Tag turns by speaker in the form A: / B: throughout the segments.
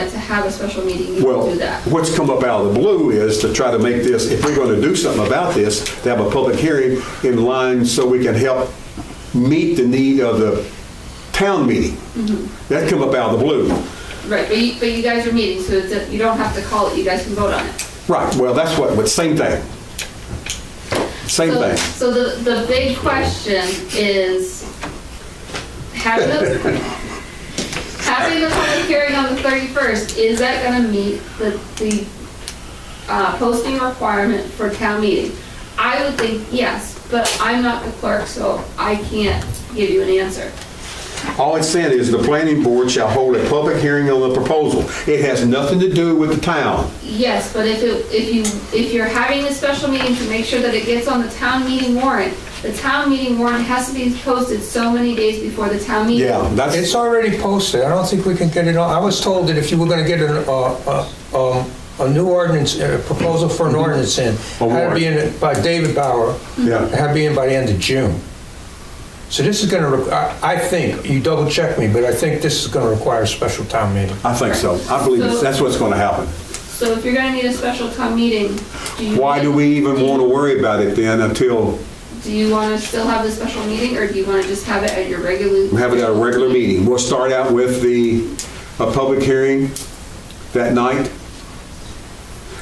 A: have a special meeting, you
B: Well,
A: can do that.
B: what's come up out of the blue is to try to make this, if we're going to do something about this, to have a public hearing in line so we can help meet the need of the town meeting.
A: Mm-hmm.
B: That come up out of the blue.
A: Right, but you, but you guys are meeting, so it's, you don't have to call it, you guys can vote on it.
B: Right, well, that's what, but same thing. Same
A: So-
B: thing.
A: So the, the big question is, having the, having the public hearing on the 31st, is that gonna meet the, the uh, posting requirement for town meeting? I would think yes, but I'm not the clerk, so I can't give you an answer.
B: All it's saying is the planning board shall hold a public hearing on the proposal. It has nothing to do with the town.
A: Yes, but if it, if you, if you're having a special meeting to make sure that it gets on the town meeting warrant, the town meeting warrant has to be posted so many days before the town meeting.
B: Yeah, that's,
C: It's already posted, I don't think we can get it on, I was told that if you were gonna get an, uh, uh, um, a new ordinance, a proposal for an ordinance in,
B: Mm-hmm. A
C: had to be in, by David Bauer,
B: Yeah.
C: had to be in by the end of June. So this is gonna, requ- I, I think, you double check me, but I think this is gonna require a special town meeting.
B: I think so. I believe it's- that's what's going to happen.
A: So if you're gonna need a special town meeting, do you?
B: Why do we even want to worry about it then until
A: Do you wanna still have the special meeting, or do you wanna just have it at your regular?
B: we have it at a regular meeting? We'll start out with the, a public hearing that night.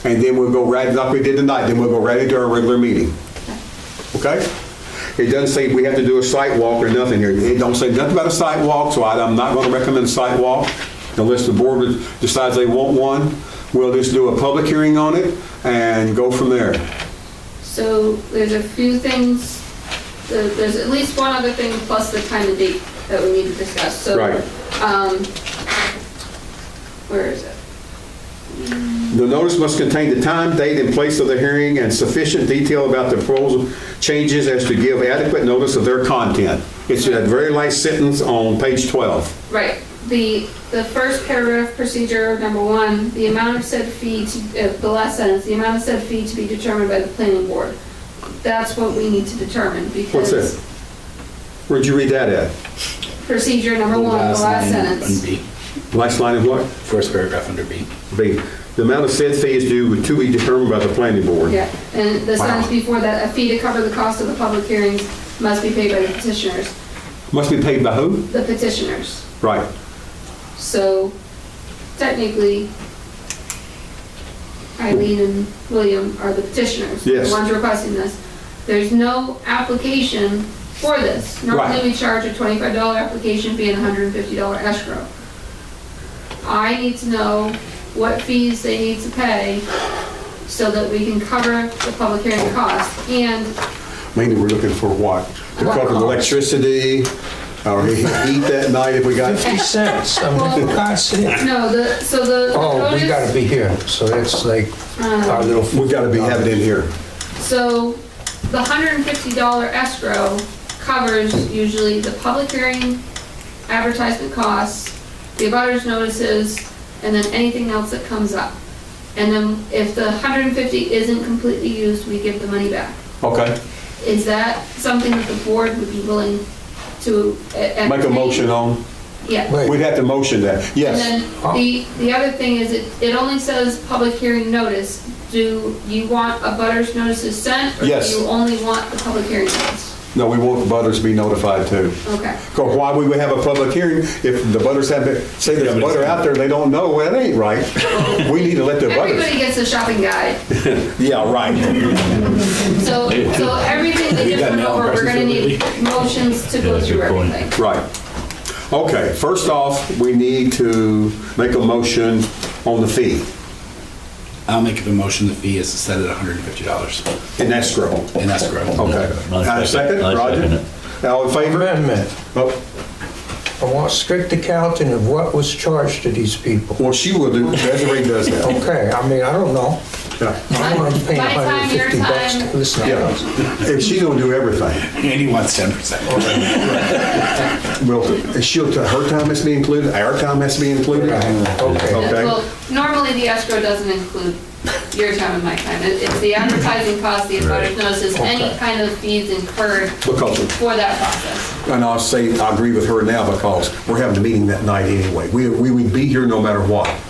B: And then we'll go right, like we did tonight, then we'll go right into our regular meeting. Okay? It doesn't say we have to do a site walk or nothing here. It don't say nothing about a site walk, so I- I'm not going to recommend a site walk unless the board decides they want one. We'll just do a public hearing on it and go from there.
A: So there's a few things, there- there's at least one other thing plus the time and date that we need to discuss, so.
B: Right.
A: Um, where is it?
B: The notice must contain the time, date, and place of the hearing and sufficient detail about the proposal changes as to give adequate notice of their content. It's that very last sentence on page 12.
A: Right, the, the first paragraph, procedure number one, the amount of said fee, to- uh, the last sentence, the amount of said fee to be determined by the planning board. That's what we need to determine, because.
B: What's that? Where'd you read that at?
A: Procedure number one, the last
D: line on
A: sentence.
D: B,
B: Last line of what?
D: first paragraph under B.
B: B. The amount of said fee is due to be determined by the planning board.
A: Yeah, and the
B: Wow.
A: sentence before that, a fee to cover the cost of the public hearings must be paid by the petitioners,
B: Must be paid by who?
A: the petitioners.
B: Right.
A: So technically, Eileen and William are the petitioners.
B: Yes.
A: The ones requesting this. There's no application for this.
B: Right.
A: Normally, we charge a twenty-five dollar application fee and a hundred and fifty dollar escrow. I need to know what fees they need to pay so that we can cover the public hearing cost. And
B: Mainly, we're looking for what? To cover the electricity, or heat that night if we got.
C: Fifty cents, I mean, for God's sake.
A: No, the, so the. the
C: Oh, we
A: notice-
C: gotta be here, so that's like our little.
B: We gotta be having it in here.
A: So the hundred and fifty dollar escrow covers usually the public hearing, advertisement costs, the abutters notices, and then anything else that comes up. And then if the hundred and fifty isn't completely used, we give the money back.
B: Okay.
A: Is that something that the board would be willing to? e-
B: Make a motion on,
A: Yeah.
C: Wait.
B: we'd have to motion that,
A: And
B: yes. Uh-huh.
A: then the, the other thing is it, it only says public hearing notice. Do you want a butters notices sent?
B: Yes.
A: Or do you only want the public hearing notice?
B: No, we want the butters to be notified too.
A: Okay.
B: Because why would we have a public hearing if the butters have been, say there's a butter out there, they don't know, well, that ain't right. We need to let the butters.
A: Everybody gets a shopping guide.
B: Yeah, right.
A: So, so everything that
D: You
A: just
D: got
A: went
D: mail
A: over, we're gonna
D: impressions
A: need motions to
E: Yeah,
A: go
E: that's a
A: through
E: good point.
A: everything.
B: Right. Okay, first off, we need to make a motion on the fee
D: I'll make a motion, the fee is set at $150
B: in escrow.
D: in escrow.
B: Okay. Uh, Second,
E: I second
B: Roger? All in favor?
C: Amendment,
B: Oh,
C: I want strict accounting of what was charged to these people.
B: Well, she will do, Desiree does that.
C: Okay, I mean, I don't know.
B: Yeah.
C: I don't want to pay
A: My time, your
C: 150 bucks
A: time.
C: to listen to us.
B: Yeah. And she don't do everything.
D: And he wants 10%.
B: Well, she'll, her time has to be included, our time has to be included.
C: Right, okay.
B: Okay,
A: Well, normally the escrow doesn't include your time and my time. It- It's the advertising cost, the abutters notices, any kind of fees incurred
B: because,
A: for that process.
B: and I'll say, I agree with her now because we're having a meeting that night anyway. We, we would be here no matter what.